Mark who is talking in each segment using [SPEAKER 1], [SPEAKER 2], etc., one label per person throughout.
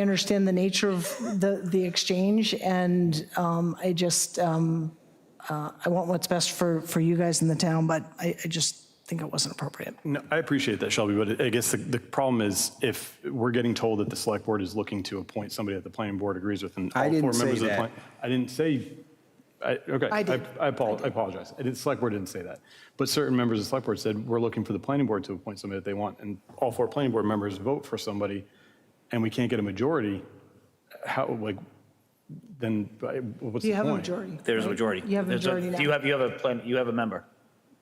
[SPEAKER 1] I understand the nature of the, the exchange, and um, I just, um, uh, I want what's best for, for you guys in the town, but I, I just think it wasn't appropriate.
[SPEAKER 2] No, I appreciate that, Shelby, but I guess the, the problem is if we're getting told that the select board is looking to appoint somebody that the planning board agrees with and all
[SPEAKER 3] I
[SPEAKER 2] four
[SPEAKER 3] didn't say
[SPEAKER 2] members of the
[SPEAKER 3] that.
[SPEAKER 2] plan- I didn't say, I, okay.
[SPEAKER 1] I did.
[SPEAKER 2] I apol- I apologize. I didn't, select board didn't say that. But certain members of the select board said, we're looking for the planning board to appoint somebody that they want. And all four planning board members vote for somebody and we can't get a majority, how, like, then I- what's
[SPEAKER 1] Do
[SPEAKER 2] the
[SPEAKER 1] you have a
[SPEAKER 2] point?
[SPEAKER 1] majority?
[SPEAKER 4] There's a
[SPEAKER 1] right?
[SPEAKER 4] majority.
[SPEAKER 1] You have a
[SPEAKER 4] There's
[SPEAKER 1] majority now.
[SPEAKER 4] You have, you have a plan, you have a member.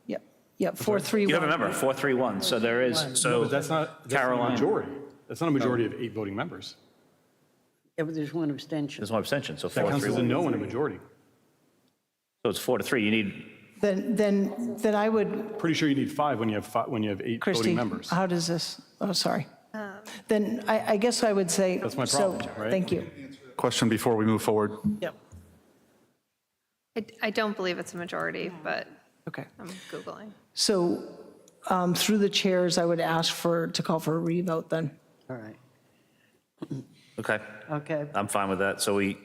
[SPEAKER 1] Yep, yep, four, three, one.
[SPEAKER 4] You have a member, 431, so there is, so.
[SPEAKER 2] But that's not, that's not a
[SPEAKER 4] Caroline.
[SPEAKER 2] majority. That's not a majority of eight voting members.
[SPEAKER 5] Yeah, but there's one abstention.
[SPEAKER 4] There's one abstention, so
[SPEAKER 2] That counts as a
[SPEAKER 4] 431.
[SPEAKER 2] no and a majority.
[SPEAKER 4] So it's four to three, you need,
[SPEAKER 1] Then, then, then I would,
[SPEAKER 2] Pretty sure you need five when you have five, when you have eight voting
[SPEAKER 1] Christie,
[SPEAKER 2] members.
[SPEAKER 1] how does this, oh, sorry. Then I, I guess I would say.
[SPEAKER 2] That's my
[SPEAKER 1] so,
[SPEAKER 2] problem, right?
[SPEAKER 1] Thank you.
[SPEAKER 6] Question before we move forward.
[SPEAKER 1] Yep,
[SPEAKER 7] I, I don't believe it's a majority, but
[SPEAKER 1] okay.
[SPEAKER 7] I'm Googling.
[SPEAKER 1] So um, through the chairs, I would ask for, to call for a revote then.
[SPEAKER 5] All right,
[SPEAKER 4] okay,
[SPEAKER 5] okay.
[SPEAKER 4] I'm fine with that. So we,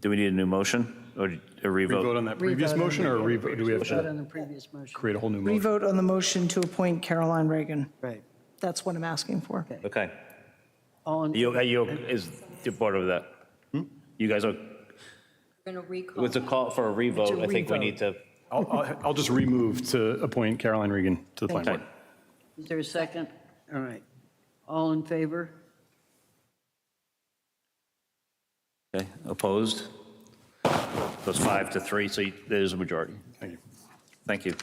[SPEAKER 4] do we need a new motion or a
[SPEAKER 2] Vote
[SPEAKER 4] revote?
[SPEAKER 2] on that previous motion or re- do we have
[SPEAKER 5] Vote
[SPEAKER 2] to
[SPEAKER 5] on the previous motion.
[SPEAKER 2] create a whole new motion?
[SPEAKER 1] Revote on the motion to appoint Caroline Reagan.
[SPEAKER 5] Right.
[SPEAKER 1] That's what I'm asking for.
[SPEAKER 4] Okay.
[SPEAKER 5] All in,
[SPEAKER 4] You, are you, is the board over that?
[SPEAKER 2] Hmm?
[SPEAKER 4] You guys are,
[SPEAKER 8] Going to recall.
[SPEAKER 4] with a call for a revote, I think we need to,
[SPEAKER 2] I'll, I'll- I'll just remove to appoint Caroline Regan to the planning
[SPEAKER 4] okay.
[SPEAKER 2] board.
[SPEAKER 5] is there a second? All right. All in favor?
[SPEAKER 4] Okay, opposed? So it's five to three, so you- there's a majority.
[SPEAKER 2] Thank you.
[SPEAKER 4] Thank you.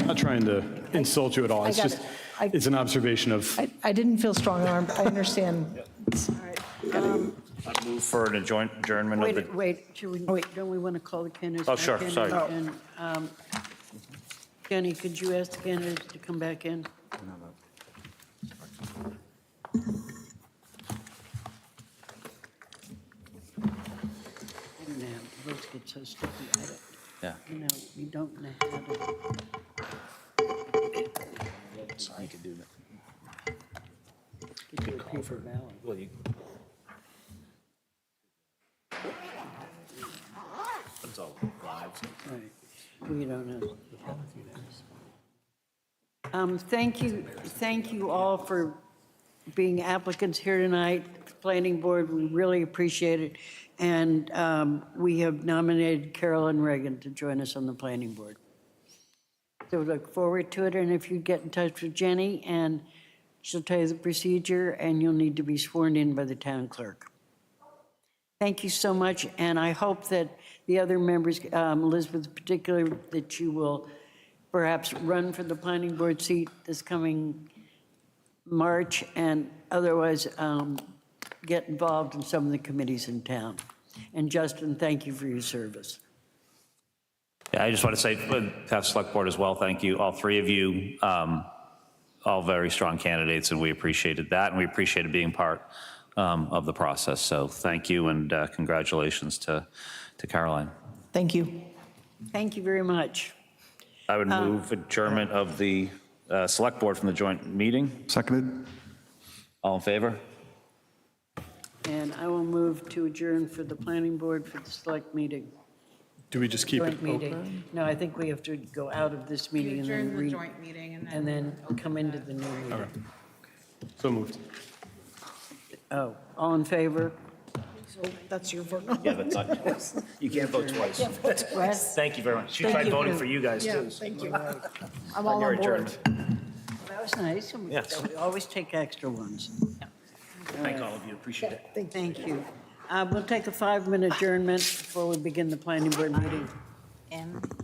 [SPEAKER 2] I'm not trying to insult you at all. It's
[SPEAKER 1] got
[SPEAKER 2] just,
[SPEAKER 1] it. I-
[SPEAKER 2] it's an observation of,
[SPEAKER 1] I, I didn't feel strong-armed, I understand.
[SPEAKER 4] I move for an adjourn- adjournment of the,
[SPEAKER 5] Wait, wait, should we,
[SPEAKER 1] Wait.
[SPEAKER 5] don't we want to call the candidates?
[SPEAKER 4] Oh,
[SPEAKER 5] back
[SPEAKER 4] sure,
[SPEAKER 5] in
[SPEAKER 4] sorry.
[SPEAKER 5] and, um, Jenny, could you ask the candidates to come back in? I don't know, votes get so sticky, I don't,
[SPEAKER 4] yeah.
[SPEAKER 5] you know, you don't know how to. Could do a paper ballot. Right, we don't know. Um, Thank you, thank you all for being applicants here tonight, planning board, we really appreciate it. And um, we have nominated Carolyn Reagan to join us on the planning board. So we look forward to it, and if you get in touch with Jenny, and she'll tell you the procedure, and you'll need to be sworn in by the town clerk. Thank you so much, and I hope that the other members, um, Elizabeth in particular, that you will perhaps run for the planning board seat this coming March, and otherwise um, get involved in some of the committees in town. And Justin, thank you for your service.
[SPEAKER 4] Yeah, I just want to say, but past select board as well, thank you, all three of you, um, all very strong candidates, and we appreciated that, and we appreciated being part um, of the process. So thank you, and uh, congratulations to to Caroline.
[SPEAKER 1] Thank you.
[SPEAKER 5] Thank you very much.
[SPEAKER 4] I would move adjournment of the uh, select board from the joint meeting.
[SPEAKER 6] Seconded?
[SPEAKER 4] All in favor?
[SPEAKER 5] And I will move to adjourn for the planning board for the select meeting,
[SPEAKER 2] do we just keep it open?
[SPEAKER 5] joint meeting. No, I think we have to go out of this meeting and then
[SPEAKER 8] During
[SPEAKER 5] re-
[SPEAKER 8] the joint meeting and then.
[SPEAKER 5] and then come into the new meeting.
[SPEAKER 2] So moved.
[SPEAKER 5] Oh, all in favor?
[SPEAKER 1] That's your vote.
[SPEAKER 4] Yeah, that's not, you can't vote twice. Thank you very much. She tried voting for you guys, too.
[SPEAKER 1] Thank you. I'm all on board.
[SPEAKER 5] That was nice. and we-
[SPEAKER 4] Yes.
[SPEAKER 5] We always take extra ones.
[SPEAKER 4] Thank all of you, appreciate it.
[SPEAKER 5] Thank you. Uh, We'll take a five-minute adjournment before we begin the planning board meeting.
[SPEAKER 8] And